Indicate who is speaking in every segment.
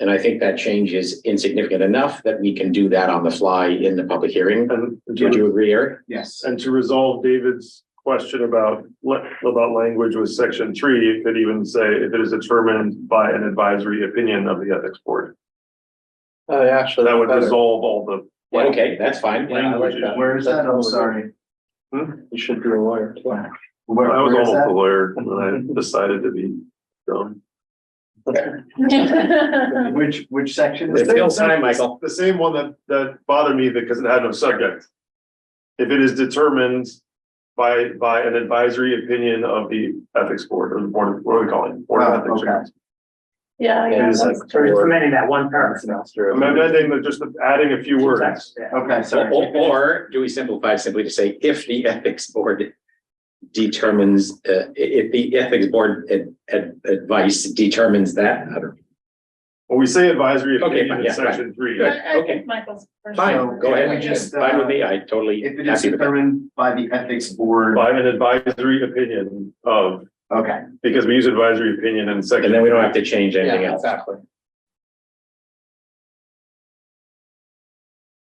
Speaker 1: And I think that change is insignificant enough that we can do that on the fly in the public hearing.
Speaker 2: And
Speaker 1: Would you agree, Eric?
Speaker 3: Yes.
Speaker 2: and to resolve David's question about la- about language with section three, it could even say if it is determined by an advisory opinion of the ethics board.
Speaker 3: Uh,
Speaker 4: Oh, yeah,
Speaker 2: So
Speaker 4: so
Speaker 2: that would resolve all the.
Speaker 1: Yeah, Okay, that's fine.
Speaker 2: Yeah, I like that.
Speaker 3: Where is that? I'm sorry. Hmm?
Speaker 4: You should be a lawyer.
Speaker 2: I
Speaker 3: Where,
Speaker 2: was
Speaker 3: where is
Speaker 2: almost a
Speaker 3: that?
Speaker 2: lawyer when I decided to be dumb.
Speaker 3: Which, which section? is
Speaker 1: It's
Speaker 3: it?
Speaker 1: still time, Michael.
Speaker 2: The same one that that bothered me because it had no subject. If it is determined by by an advisory opinion of the ethics board or the board, of- what are we calling? Board
Speaker 3: Oh,
Speaker 2: of ethics.
Speaker 3: okay.
Speaker 5: Yeah,
Speaker 1: It
Speaker 5: yeah,
Speaker 1: is
Speaker 5: that's-
Speaker 1: like-
Speaker 6: So it's amending that one paragraph.
Speaker 2: I'm amending, the- just adding a few words.
Speaker 6: Yeah.
Speaker 3: Okay,
Speaker 1: Or,
Speaker 3: sorry.
Speaker 1: or- or do we simplify simply to say if the ethics board determines, uh, i- if the ethics board ad- ad- advice determines that? I don't-
Speaker 2: When we say advisory
Speaker 1: Okay,
Speaker 2: opinion
Speaker 1: fine,
Speaker 2: in
Speaker 1: yeah, fine.
Speaker 2: section three,
Speaker 5: I- I
Speaker 1: Okay.
Speaker 5: think Michael's.
Speaker 1: Fine, go
Speaker 3: Can
Speaker 1: ahead.
Speaker 3: we just,
Speaker 1: Fine with
Speaker 3: uh,
Speaker 1: me. I totally
Speaker 3: If it is
Speaker 1: happy with that.
Speaker 3: determined by the ethics board,
Speaker 2: by an advisory opinion of,
Speaker 3: okay,
Speaker 2: because we use advisory opinion in section.
Speaker 1: And then we don't have to change anything else.
Speaker 4: Exactly.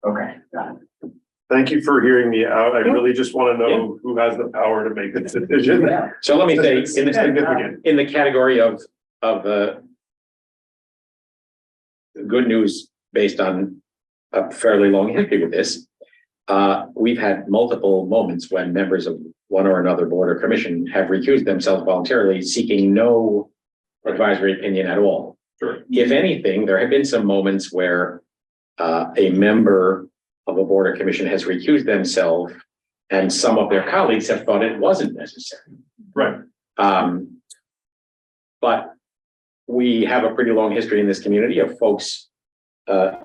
Speaker 3: okay, got it.
Speaker 2: Thank you for hearing me out. I really just want to know who has the power to make this decision.
Speaker 1: So let me say, in
Speaker 2: It's
Speaker 1: the,
Speaker 2: significant.
Speaker 1: in the category of, of, uh, good news based on a fairly long history with this, uh, we've had multiple moments when members of one or another board or commission have recused themselves voluntarily, seeking no advisory opinion at all.
Speaker 2: Sure.
Speaker 1: If anything, there have been some moments where, uh, a member of a board or commission has recused themselves and some of their colleagues have thought it wasn't necessary.
Speaker 2: Right.
Speaker 1: Um, but we have a pretty long history in this community of folks uh,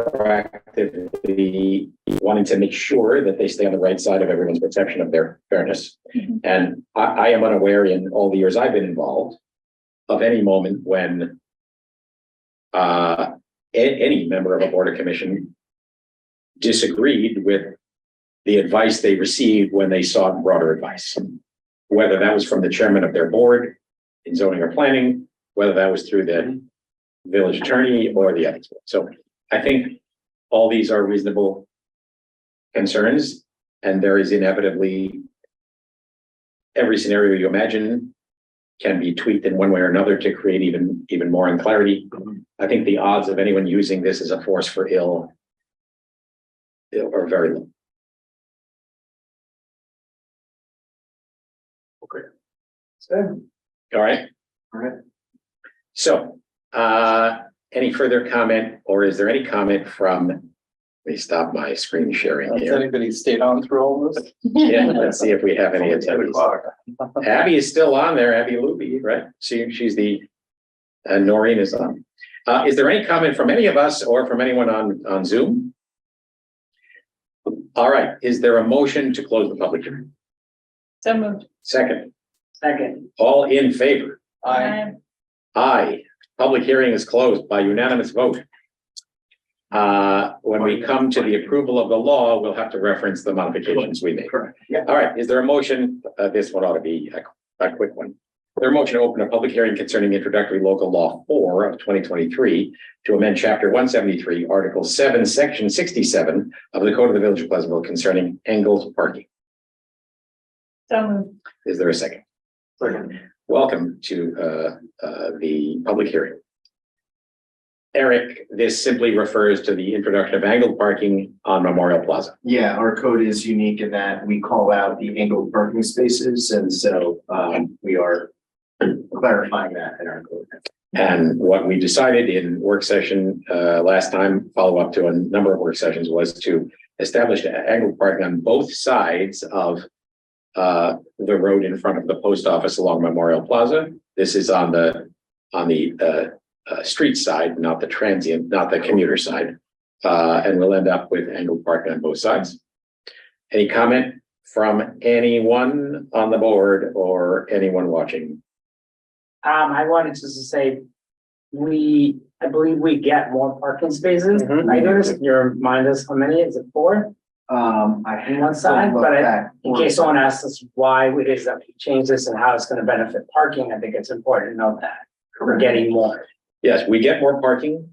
Speaker 1: proactively wanting to make sure that they stay on the right side of everyone's perception of their fairness.
Speaker 5: Mhm.
Speaker 1: And I, I am unaware in all the years I've been involved of any moment when uh, a- any member of a board or commission disagreed with the advice they received when they sought broader advice whether that was from the chairman of their board in zoning or planning, whether that was through the village attorney or the ethics. board. So I think all these are reasonable concerns, and there is inevitably every scenario you imagine can be tweaked in one way or another to create even, even more unclarity. I think the odds of anyone using this as a force for ill ill are very low.
Speaker 3: So,
Speaker 1: All right?
Speaker 3: all right.
Speaker 1: So, uh, any further comment, or is there any comment from, let me stop my screen sharing
Speaker 4: Has
Speaker 1: here.
Speaker 4: anybody stayed on through all this?
Speaker 1: Yeah, let's see if we have any attendees. Abby is still on there, Abby Luby, right? She, she's the, uh, Noreen is on. Uh, is there any comment from any of us or from anyone on, on Zoom? All right, is there a motion to close the public hearing?
Speaker 5: So moved.
Speaker 1: Second,
Speaker 6: Second,
Speaker 1: all in favor?
Speaker 4: I,
Speaker 5: Um,
Speaker 1: Aye. Public hearing is closed by unanimous vote. Uh, when we come to the approval of the law, we'll have to reference the modifications we made.
Speaker 3: Correct, yeah.
Speaker 1: All right, is there a motion? Uh, this one ought to be a, a quick one. There a motion to open a public hearing concerning introductory local law four of twenty twenty-three to amend chapter one seventy-three, article seven, section sixty-seven of the Code of the Village of Pleasantville concerning angled parking.
Speaker 5: So moved.
Speaker 1: Is there a second?
Speaker 2: Second.
Speaker 1: Welcome to uh, uh, the public hearing. Eric, this simply refers to the introduction of angled parking on Memorial Plaza.
Speaker 3: Yeah, our code is unique in that we call out the angled parking spaces, and so, um, we are clarifying that in our code.
Speaker 1: And what we decided in work session uh, last time, follow up to a number of work sessions, was to establish a- angled parking on both sides of uh, the road in front of the post office along Memorial Plaza. This is on the, on the uh, uh, street side, not the transient, not the commuter side. Uh, And we'll end up with angled parking on both sides. Any comment from anyone on the board or anyone watching?
Speaker 6: um, I wanted just to say, we, I believe we get more parking spaces.
Speaker 4: Mhm.
Speaker 6: I noticed, you remind us how many, Mm-hmm. is it four?
Speaker 3: Um, I have.
Speaker 6: On one
Speaker 3: to
Speaker 6: side,
Speaker 3: look
Speaker 6: but I-
Speaker 3: back
Speaker 6: In
Speaker 3: for-
Speaker 6: case someone asks us why it is that we changed this and how it's gonna benefit parking, I think it's important to know that we're
Speaker 3: Correct.
Speaker 6: getting more.
Speaker 1: Yes, we get more parking